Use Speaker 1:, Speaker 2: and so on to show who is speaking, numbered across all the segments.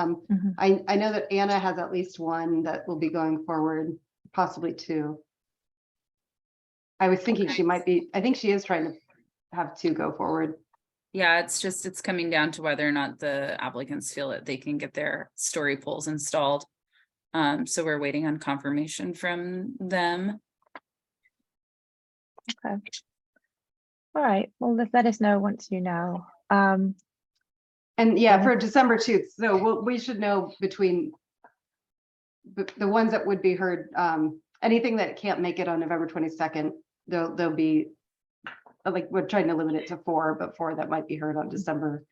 Speaker 1: Um,
Speaker 2: Mhm.
Speaker 1: I, I know that Anna has at least one that will be going forward, possibly two. I was thinking she might be, I think she is trying to have two go forward.
Speaker 3: Yeah, it's just, it's coming down to whether or not the applicants feel that they can get their story poles installed. Um, so we're waiting on confirmation from them.
Speaker 2: All right, well, let- let us know once you know. Um,
Speaker 1: And yeah,
Speaker 2: Yeah.
Speaker 1: for December too, so we'll, we should know between the, the ones that would be heard, um, anything that can't make it on November twenty-second, they'll, they'll be uh, like, we're trying to limit it to four, but four that might be heard on December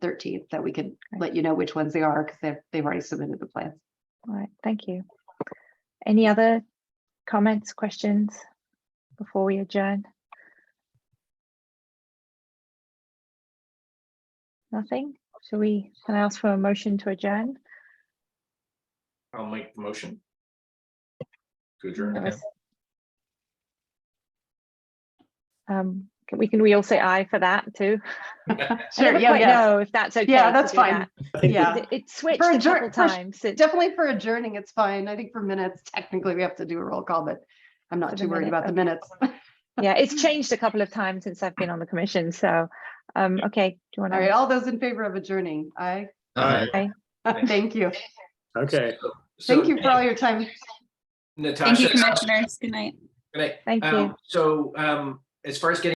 Speaker 1: thirteenth, that we could let you know which ones they are, because they've, they've already submitted the plans.
Speaker 2: all right, thank you. Any other comments, questions before we adjourn? Nothing? Shall we, can I ask for a motion to adjourn?
Speaker 4: I'll make the motion. To adjourn.
Speaker 3: That
Speaker 4: yeah.
Speaker 3: was-
Speaker 2: Um, can- we can, we all say aye for that too? I
Speaker 1: Sure,
Speaker 2: never
Speaker 1: yeah,
Speaker 2: quite
Speaker 1: yeah,
Speaker 2: know if that's okay.
Speaker 1: Yeah,
Speaker 2: to
Speaker 1: that's
Speaker 2: do
Speaker 1: fine.
Speaker 2: that.
Speaker 1: yeah.
Speaker 2: It- It switched a
Speaker 1: adjourn-
Speaker 2: couple
Speaker 1: for sh-
Speaker 2: times. since-
Speaker 1: Definitely for adjourning, it's fine. I think for minutes, technically, we have to do a roll call, but I'm
Speaker 2: For
Speaker 1: not
Speaker 2: the
Speaker 1: too worried
Speaker 2: minute,
Speaker 1: about the
Speaker 2: okay.
Speaker 1: minutes.
Speaker 2: Yeah, it's changed a couple of times since I've been on the commission, so, um, okay, do you want
Speaker 1: All right,
Speaker 2: to?
Speaker 1: all those in favor of adjourning, aye.
Speaker 4: Alright, Thanks.
Speaker 1: Thank you.
Speaker 5: Okay,
Speaker 4: so
Speaker 1: Thank you for all your time.
Speaker 3: Thank
Speaker 4: Natasha.
Speaker 3: you, commissioners. Good night.
Speaker 4: Good night.
Speaker 2: Thank
Speaker 4: Um,
Speaker 2: you.
Speaker 4: So um, as far as getting